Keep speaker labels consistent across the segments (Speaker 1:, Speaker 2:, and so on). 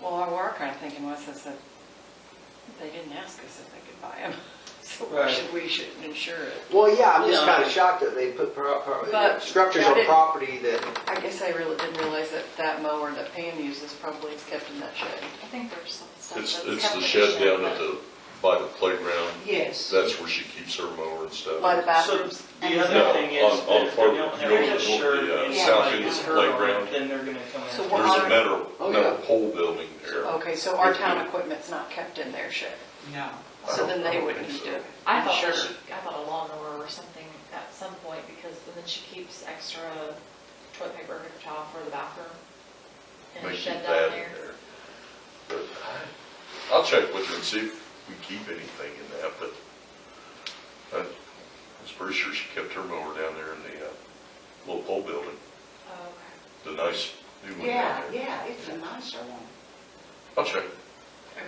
Speaker 1: Well, our our kind of thinking was is that they didn't ask us if they could buy them. So we
Speaker 2: Right.
Speaker 1: should, we should insure it.
Speaker 3: Well, yeah, I'm just
Speaker 2: No.
Speaker 3: kinda shocked that they put pro- pro-
Speaker 1: But-
Speaker 3: structures
Speaker 1: but
Speaker 3: on
Speaker 1: it-
Speaker 3: property that,
Speaker 1: I guess I really didn't realize that that mower that Pam uses probably is kept in that shed.
Speaker 4: I think there's some stuff that's.
Speaker 5: It's, it's the
Speaker 4: kept in
Speaker 5: shed down
Speaker 4: but-
Speaker 5: at the, by the playground,
Speaker 2: Yes.
Speaker 5: that's where she keeps her mower and stuff.
Speaker 1: By the
Speaker 2: So
Speaker 1: bathrooms.
Speaker 2: the
Speaker 5: No,
Speaker 2: other thing
Speaker 5: on-
Speaker 2: is
Speaker 5: on
Speaker 2: that if they
Speaker 5: Fargo,
Speaker 2: don't
Speaker 5: you
Speaker 2: have
Speaker 5: go to
Speaker 2: an
Speaker 5: the-
Speaker 2: insurance
Speaker 5: the, uh,
Speaker 2: and
Speaker 5: south
Speaker 2: somebody
Speaker 5: end
Speaker 2: gets
Speaker 5: of the
Speaker 2: hurt on
Speaker 5: playground.
Speaker 2: it, then they're gonna come
Speaker 1: So
Speaker 2: after.
Speaker 1: what-
Speaker 5: There's a metal,
Speaker 3: Oh,
Speaker 5: metal
Speaker 3: yeah.
Speaker 5: pole building there.
Speaker 1: Okay, so our town equipment's not kept in their shed.
Speaker 2: No.
Speaker 5: I
Speaker 1: So
Speaker 5: don't-
Speaker 1: then
Speaker 5: I
Speaker 1: they
Speaker 5: don't
Speaker 1: wouldn't
Speaker 5: think
Speaker 1: do
Speaker 5: so.
Speaker 1: it.
Speaker 4: I thought that
Speaker 1: Sure.
Speaker 4: she, I thought a lawnmower or something at some point, because then she keeps extra toilet paper in her towel for the bathroom. In
Speaker 5: They
Speaker 4: her
Speaker 5: keep
Speaker 4: shed
Speaker 5: that
Speaker 4: down
Speaker 5: in
Speaker 4: there.
Speaker 5: But I- I'll check with her and see if we keep anything in that, but I was pretty sure she kept her mower down there in the, uh, little pole building,
Speaker 4: Oh, okay.
Speaker 5: the nice new one
Speaker 6: Yeah,
Speaker 5: down there.
Speaker 6: yeah, it's a nicer one.
Speaker 5: I'll check.
Speaker 1: Okay.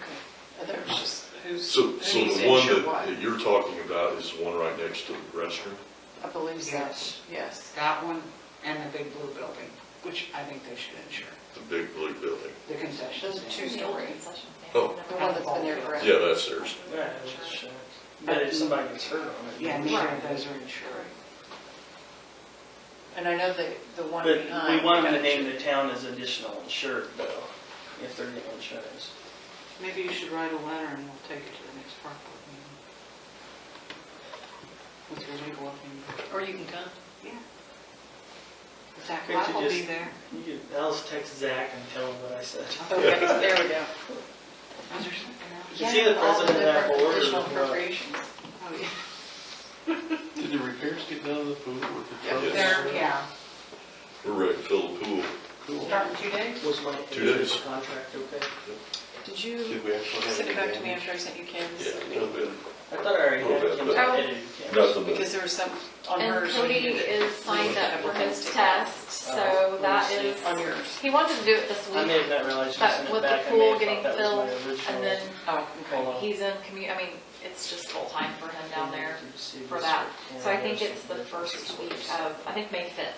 Speaker 1: And there's just, who's,
Speaker 5: So,
Speaker 1: who
Speaker 5: so
Speaker 1: needs
Speaker 5: the
Speaker 1: to
Speaker 5: one
Speaker 1: insure
Speaker 5: that
Speaker 1: what?
Speaker 5: that you're talking about is the one right next to the restroom?
Speaker 1: I believe so,
Speaker 6: Yes.
Speaker 1: yes.
Speaker 6: That one and the big blue building, which I think they should insure,
Speaker 5: The big blue building.
Speaker 6: the concession
Speaker 1: Those are
Speaker 6: stand.
Speaker 1: two story.
Speaker 4: Concession stand.
Speaker 5: Oh.
Speaker 4: Never
Speaker 1: The
Speaker 4: had
Speaker 1: one that's been there
Speaker 4: before.
Speaker 1: forever.
Speaker 5: Yeah, that's theirs.
Speaker 2: Yeah, it's insurance. But if somebody gets hurt on it.
Speaker 6: Yeah,
Speaker 2: then-
Speaker 6: neither of those are insured.
Speaker 1: And I know the, the one
Speaker 2: But
Speaker 1: behind.
Speaker 2: we want them to
Speaker 1: got
Speaker 2: name
Speaker 1: you.
Speaker 2: the town as additional insured though, if they're getting insurance.
Speaker 7: Maybe you should write a letter and we'll take it to the next park board meeting. With your legal opinion.
Speaker 1: Or you can come.
Speaker 7: Zach
Speaker 2: Could you
Speaker 7: Lyle will be
Speaker 2: just-
Speaker 7: there.
Speaker 2: You could, I'll just text Zach and tell him what I said.
Speaker 1: Okay, there we go.
Speaker 7: Is there something else?
Speaker 2: Is he the
Speaker 1: Yeah, all
Speaker 2: president of that
Speaker 1: different
Speaker 2: board or
Speaker 1: additional
Speaker 2: what?
Speaker 1: appropriations.
Speaker 7: Oh, yeah.
Speaker 8: Did the repairs get done on the pool or the truck?
Speaker 5: Yes.
Speaker 6: Yeah,
Speaker 5: We're ready to fill the pool.
Speaker 8: Cool.
Speaker 6: starting two days.
Speaker 2: Was my
Speaker 5: Two days.
Speaker 2: contract okay?
Speaker 1: Did you
Speaker 8: Did we actually have?
Speaker 1: send it back to me
Speaker 8: any damage?
Speaker 1: after I sent you
Speaker 5: Yeah,
Speaker 1: Kim's?
Speaker 5: a little bit.
Speaker 2: I thought I already had
Speaker 5: Little
Speaker 2: it.
Speaker 5: bit,
Speaker 2: Kim-
Speaker 4: but-
Speaker 2: I did it, Kim.
Speaker 5: Nothing but
Speaker 1: Because there was some on
Speaker 4: And
Speaker 1: hers.
Speaker 4: Cody is signed up for his test,
Speaker 2: Oh,
Speaker 4: so
Speaker 2: let
Speaker 4: that
Speaker 2: me see.
Speaker 4: is,
Speaker 1: On yours.
Speaker 4: he wanted to do it this
Speaker 2: I may have
Speaker 4: week,
Speaker 2: not realized you sent
Speaker 4: but
Speaker 2: it
Speaker 4: with the
Speaker 2: back. I may
Speaker 4: pool
Speaker 2: have
Speaker 4: getting
Speaker 2: thought that
Speaker 4: filled,
Speaker 2: was my original.
Speaker 4: and then
Speaker 1: Oh, okay.
Speaker 2: Hold on.
Speaker 4: he's in commu, I mean, it's just full time for him down there.
Speaker 2: See
Speaker 4: for
Speaker 2: this
Speaker 4: that.
Speaker 2: one.
Speaker 4: So I think it's the first week of, I think May 5th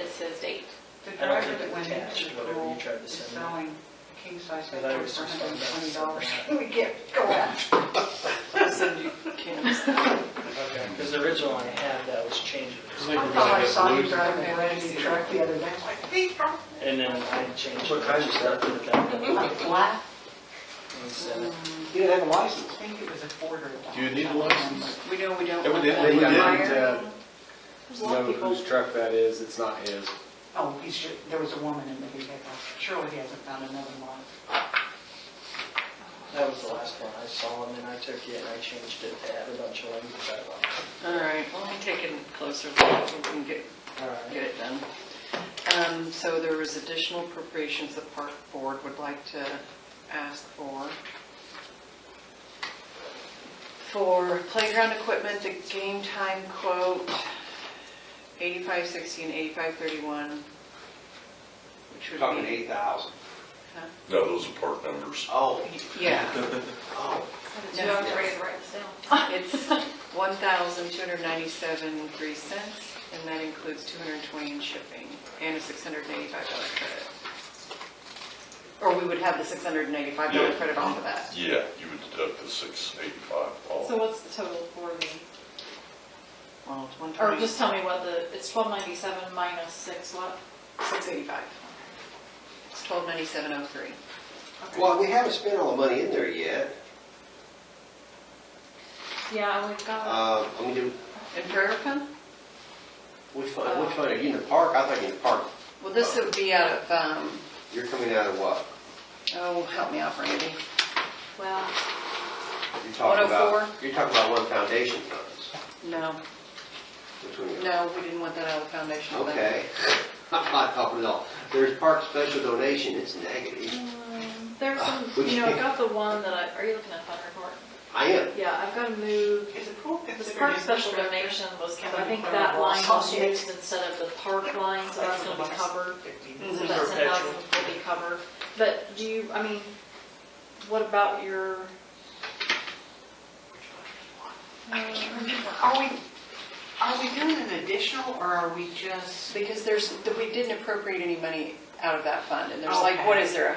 Speaker 4: is his date.
Speaker 6: The
Speaker 2: I don't
Speaker 6: driver
Speaker 2: think
Speaker 6: that
Speaker 2: it
Speaker 6: went
Speaker 2: attached,
Speaker 6: into the
Speaker 2: whatever
Speaker 6: pool
Speaker 2: you tried to
Speaker 6: is
Speaker 2: send me.
Speaker 6: selling a king size
Speaker 2: But I
Speaker 6: bed
Speaker 2: was
Speaker 6: for
Speaker 2: just
Speaker 6: hundred and twenty
Speaker 2: like
Speaker 6: dollars.
Speaker 2: that.
Speaker 6: We get, go out.
Speaker 1: I'll send you Kim's.
Speaker 2: Okay, because the original I had, that was changed.
Speaker 8: I
Speaker 6: I
Speaker 8: think we're
Speaker 6: thought I
Speaker 8: gonna
Speaker 6: saw
Speaker 8: have
Speaker 6: you
Speaker 8: to
Speaker 6: driving around in your truck the other day, I'm like, "Hey, from
Speaker 2: And then I changed.
Speaker 3: What kind of stuff?
Speaker 6: Like flat?
Speaker 2: Because
Speaker 3: You didn't have a license.
Speaker 6: I think it was a quarter. of a
Speaker 8: Do you need a
Speaker 6: dollar.
Speaker 8: license?
Speaker 1: We know we don't want that.
Speaker 8: Evidently, we didn't uh,
Speaker 6: There's a lot of
Speaker 8: know
Speaker 6: people-
Speaker 8: whose truck that is, it's not his.
Speaker 6: Oh, he's, sure- there was a woman in the vehicle, surely he hasn't found another one.
Speaker 2: That was the last one I saw, and then I took it and I changed it to add a bunch of language I liked.
Speaker 1: All right, well, let me take a closer look, so we can get,
Speaker 2: All right.
Speaker 1: get it done. Um, so there was additional appropriations the park board would like to ask for. For playground equipment, the game time quote, eighty-five sixty and eighty-five thirty-one, which would be.
Speaker 3: Talking eight thousand.
Speaker 5: No, those are part numbers.
Speaker 3: Oh,
Speaker 1: Yeah,
Speaker 3: oh.
Speaker 4: Do you have to write this down?
Speaker 1: it's one thousand two hundred ninety-seven three cents, and that includes two hundred and twenty in shipping, and a six hundred and eighty-five dollar credit. Or we would have the six hundred and eighty-five dollar
Speaker 5: Yeah.
Speaker 1: credit off of that.
Speaker 5: Yeah, you would deduct the six eighty-five
Speaker 4: So
Speaker 5: off.
Speaker 4: what's the total for the,
Speaker 1: Well, it's one
Speaker 4: or
Speaker 1: twenty,
Speaker 4: just tell me what the, it's 1297 minus 6 what?
Speaker 1: six eighty-five. It's twelve ninety-seven oh three.
Speaker 3: Well, we haven't spent all the money in there yet.
Speaker 4: Yeah, and we've got,
Speaker 3: Uh, I mean, did-
Speaker 1: And Prairie Fund?
Speaker 3: which fund, which fund are you in the park? I think in the park,
Speaker 1: Well, this would be out of, um,
Speaker 3: you're coming out of what?
Speaker 1: oh, help me out, Randy.
Speaker 4: well,
Speaker 3: You're talking about-
Speaker 1: 104?
Speaker 3: You're talking about one oh foundation funds.
Speaker 1: No,
Speaker 3: Which one?
Speaker 1: no, we didn't want that out of the foundation. fund.
Speaker 3: Okay. I'm not talking at all. There's park special donation, it's negative.
Speaker 4: um, there's some, you know, I got the one that I, are you looking at fund report?
Speaker 3: I am.
Speaker 4: Yeah, I've got to move,
Speaker 6: Is the pool
Speaker 4: this
Speaker 6: considered?
Speaker 4: park special
Speaker 6: infrastructure?
Speaker 4: donation was, I think that line was used instead of the park line, so that's going to be covered. So that ten thousand will be covered, but do you, I mean, what about your?
Speaker 6: Are we, are we doing an additional or are we just?
Speaker 1: Because there's, we didn't appropriate any money out of that fund, and there's like,
Speaker 6: Okay.
Speaker 1: what is there, a